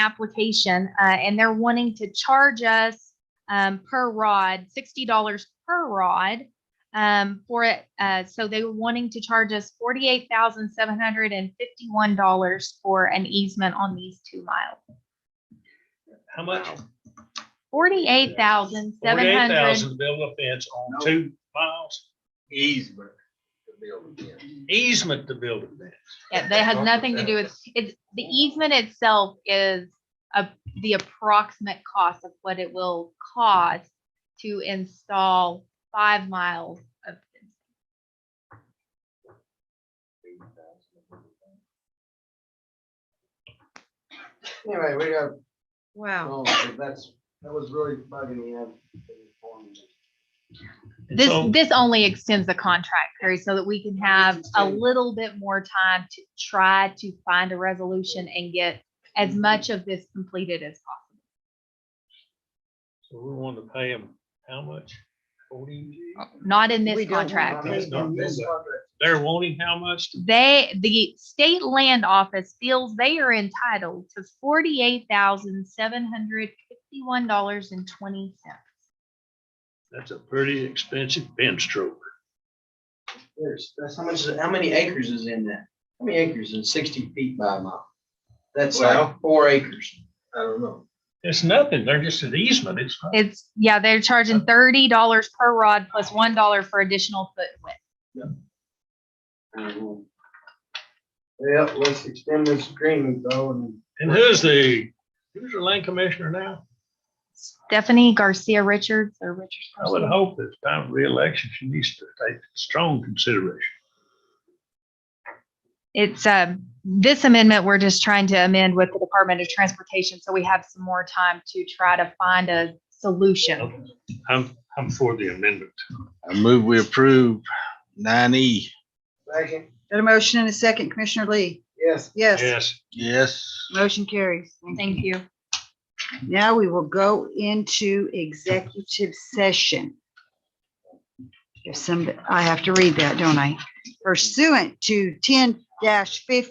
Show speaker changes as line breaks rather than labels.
application, uh, and they're wanting to charge us um, per rod, sixty dollars per rod um, for it. Uh, so they were wanting to charge us forty-eight thousand seven hundred and fifty-one dollars for an easement on these two miles.
How much?
Forty-eight thousand seven
Forty-eight
hundred.
thousand to build a fence on
No.
two miles,
easement to build again.
easement to build a fence.
Yeah, that has nothing to do with, it's, the easement itself is a, the approximate cost of what it will cost to install five miles of. fence.
Anyway, we got,
Wow.
oh, that's, that was really bugging me. out.
And
This,
so-
this only extends the contract period so that we can have a
Understand.
little bit more time to try to find a resolution and get as much of this completed as possible.
So we want to pay them how much? Forty,
Not in this
We don't want
contract.
That's not
This
good.
contract,
they're wanting how much?
they the state land office feels they are entitled to forty-eight thousand seven hundred fifty-one dollars and twenty cents.
That's a pretty expensive fence stroke.
There's, that's how much, how many acres is in that? How many acres is sixty feet by a mile? That's like four acres. I don't know.
It's nothing. They're just an easement. It's, not-
It's, yeah, they're charging thirty dollars per rod plus one dollar for additional foot width.
Yeah, let's extend this agreement though and.
and who's the, who's the land commissioner now?
Stephanie Garcia Richards or Richards.
I would
Garcia.
hope that time of reelection, she needs to take strong consideration.
It's, um, this amendment, we're just trying to amend with the Department of Transportation, so we have some more time to try to find a solution.
I'm, I'm for the amendment.
I move we approve nine E.
Second,
Got a motion and a second. Commissioner Lee?
yes,
Yes.
Yes,
Yes.
Motion carries. Thank you.
Thank you.
Now we will go into executive session. If some, I have to read that, don't I? Pursuant to ten dash fifty.